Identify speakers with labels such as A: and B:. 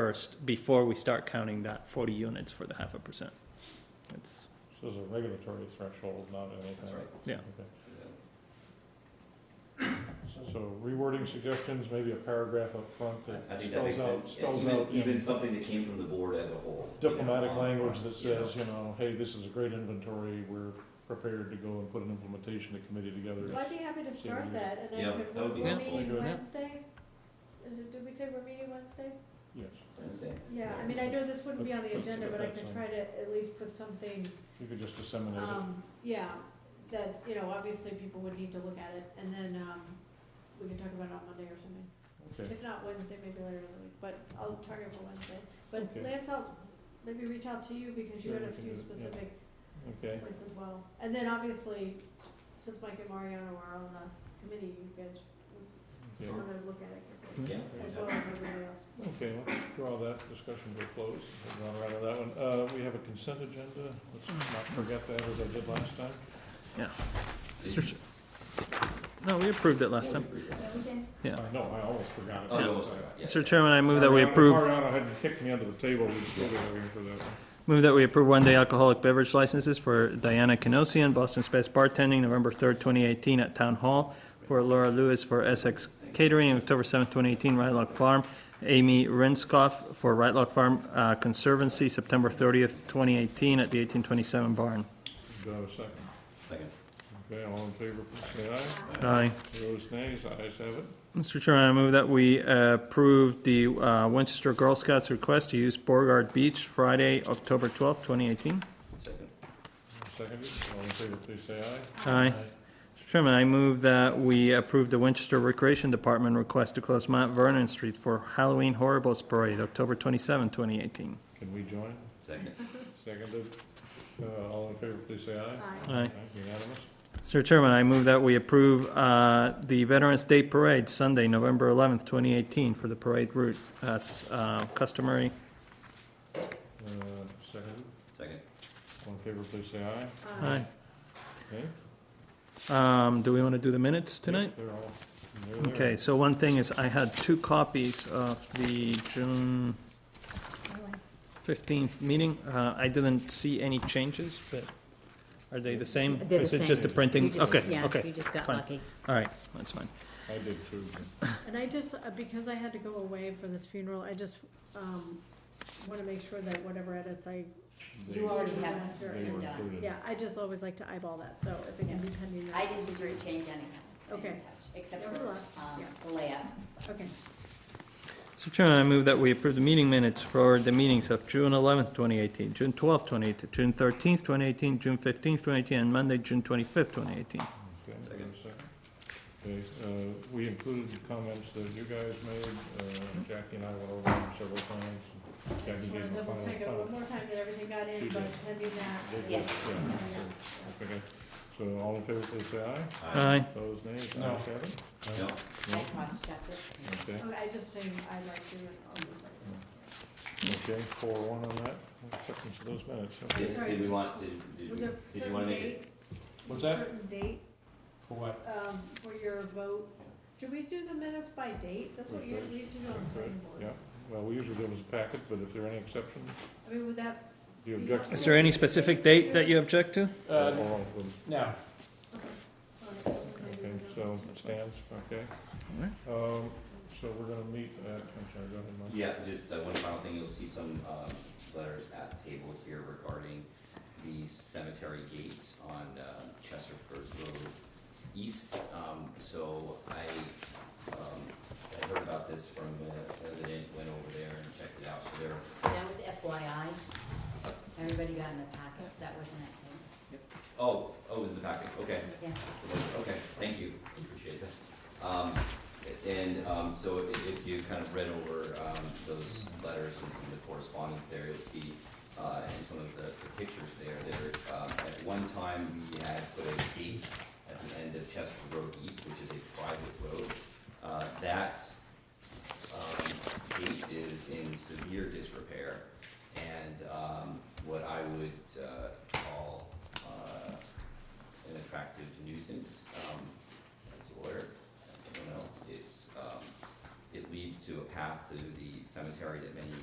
A: first before we start counting that forty units for the half a percent. It's,
B: So it's a regulatory threshold, not anything.
C: That's right.
A: yeah,
B: Okay. So rewording suggestions, maybe a paragraph up front
C: I
B: that
C: think that makes
B: spells out,
C: sense. Yeah,
B: spells
C: even-
B: out
C: Even
B: in
C: something that came from the board as a whole. you know,
B: diplomatic
C: on the
B: language
C: front,
B: that
C: you know.
B: says, you know, hey, this is a great inventory, we're prepared to go and put an implementation committee together.
D: Well, I'd be happy to start that, and
C: Yeah,
D: then if
C: that would be
D: we're
C: helpful.
D: meeting
B: Yeah.
D: Wednesday, is it, did we say we're meeting Wednesday?
B: Yes,
C: Wednesday.
D: Yeah, I mean, I know this wouldn't be on the
B: Let's see
D: agenda,
B: what
D: but I
B: that's
D: can
B: on.
D: try to at least put something,
B: you could just disseminate it.
D: um, yeah, that, you know, obviously people would need to look at it, and then, um, we can talk about it on Monday or something.
B: Okay.
D: If not Wednesday, maybe later in the week, but I'll target for Wednesday.
B: Okay.
D: But Lance, I'll maybe reach out to you because you
B: Yeah,
D: had a
B: we can
D: few
B: do it, yeah.
D: specific
B: Okay,
D: points as well. And then obviously, since Mike and Mariano are on the committee, you guys
B: Yeah.
D: want to look at it
A: Hmm.
C: Yeah.
D: as well as everybody else.
B: okay, let's draw that discussion to a close, We've gone right on that one. Uh, we have a consent agenda, let's not forget that as I did last time.
A: no, we approved it last
C: Yeah,
A: time.
C: we agree.
A: Yeah.
B: I know, I almost forgot it.
C: Oh,
B: last
C: you almost
B: time.
C: forgot, yeah.
A: Mr. Chairman, I move that we
B: Mariano-
A: approve,
B: Mariano hadn't kicked me under the table, we still were waiting for that one.
A: move that we approve one-day alcoholic beverage licenses for Diana Canosian, Boston Space Bartending, November third, twenty eighteen at Town Hall, for Laura Lewis for Essex Catering, October seventh, twenty eighteen, Rytlock Farm, Amy Renskoff for Rytlock Farm uh, Conservancy, September thirtieth, twenty eighteen, at the eighteen twenty-seven barn.
B: Do I have a second?
C: Second.
B: Okay, all in favor, please say aye.
A: Aye.
B: Those nays, ayes have it.
A: Mr. Chairman, I move that we uh, approve the uh, Winchester Girl Scouts request to use Beauregard Beach Friday, October 12th, 2018.
C: Second.
B: Seconded, all in favor, please say aye.
A: Aye. Mr. Chairman, I move that we approve the Winchester Recreation Department request to close Mount Vernon Street for Halloween Horribles Parade, October 27, 2018.
B: Can we join?
C: Second.
B: Seconded, uh, all in favor, please say aye.
D: Aye.
A: Aye.
B: Unanimous.
A: Mr. Chairman, I move that we approve uh, the Veterans Day Parade, Sunday, November 11th, 2018, for the parade route as uh, customary.
B: Uh, seconded,
C: Second.
B: all in favor, please say aye.
D: uh,
A: Aye.
B: Okay?
A: Um, Do we want to do the minutes tonight?
B: They're all, they're there.
A: Okay, so one thing is, I had two copies of the June fifteenth meeting. Uh, I didn't see any changes, but are they the same?
E: They're the
A: Is it just a
B: same.
E: You
A: printing?
E: just-
A: Okay,
E: yeah,
A: okay,
E: You just got
A: fine.
E: lucky.
A: all right, that's fine.
B: I did too.
D: And I just, uh, because I had to go away for this funeral, I just, um, want to make sure that whatever edits I.
B: They-
E: You already have
B: They were
E: and, uh,
B: included.
D: Yeah, I just always like to eyeball that, so if it can be pending.
E: I didn't change anything. I didn't
D: Okay.
E: touch, Except for,
D: Nevertheless,
E: um,
D: yeah.
E: the layout.
D: Okay,
A: So Chairman, I move that we approve the meeting minutes for the meetings of June eleventh, twenty eighteen, June twelfth, twenty eighteen, June thirteenth, twenty eighteen, June fifteenth, twenty eighteen, and Monday, June twenty-fifth, twenty eighteen.
B: Okay,
C: Second.
B: wait a second. Okay, uh, we included the comments that you guys made, uh, Jackie and I went over them several times.
D: I
B: Jackie
D: just want
B: gave
D: to
B: the
D: double
B: final.
D: check it
B: final-
D: one more time that everything got
B: She
D: in,
B: did.
D: but pending that.
B: they did,
E: Yes.
B: yeah,
D: Yeah,
B: okay.
D: yeah.
B: Okay, so all in favor, please say aye.
A: Aye.
B: Those nays,
C: No.
B: ayes have it?
C: No.
E: I cross-checked it.
B: Okay,
D: Oh, I just think I like to. and
B: okay, four one on that, acceptance of those minutes, okay.
C: Did, did we want, did,
D: I'll do
C: did,
D: that. Was there
C: we-
D: a
C: did you
D: certain
C: wanna make it?
D: date?
B: What's that?
D: Certain date,
B: For what?
D: um, for your vote. Should we do the minutes by date? That's what you, we used to do on the planning board.
B: Yeah, well, we usually do them as a packet, but if there are any exceptions,
D: I mean, would that,
B: do you object?
A: Is there any specific date that you object to?
B: Uh, no.
D: okay.
B: Okay, so it stands, okay. Um, so we're gonna meet at, I'm sorry, go ahead, Mike.
C: Yeah, just uh, one final thing, you'll see some um, letters at the table here regarding the cemetery gate on uh, Chesterford Road East. Um, So I, um, I heard about this from the president, went over there and checked it out, so there,
E: That was FYI. Everybody got in the packets, that wasn't it.
C: oh, oh, it was in the packet, okay.
E: Yeah.
C: Okay, thank you, appreciate that. Um, and, um, so if, if you kind of read over, um, those letters and some of the correspondence there, you'll see, uh, and some of the, the pictures there, there, um, at one time, we had put a gate at the end of Chester Road East, which is a private road. Uh, that, um, gate is in severe disrepair, and, um, what I would, uh, call, uh, an attractive nuisance, um, as a lawyer, I don't know, it's, um, it leads to a path to the cemetery that many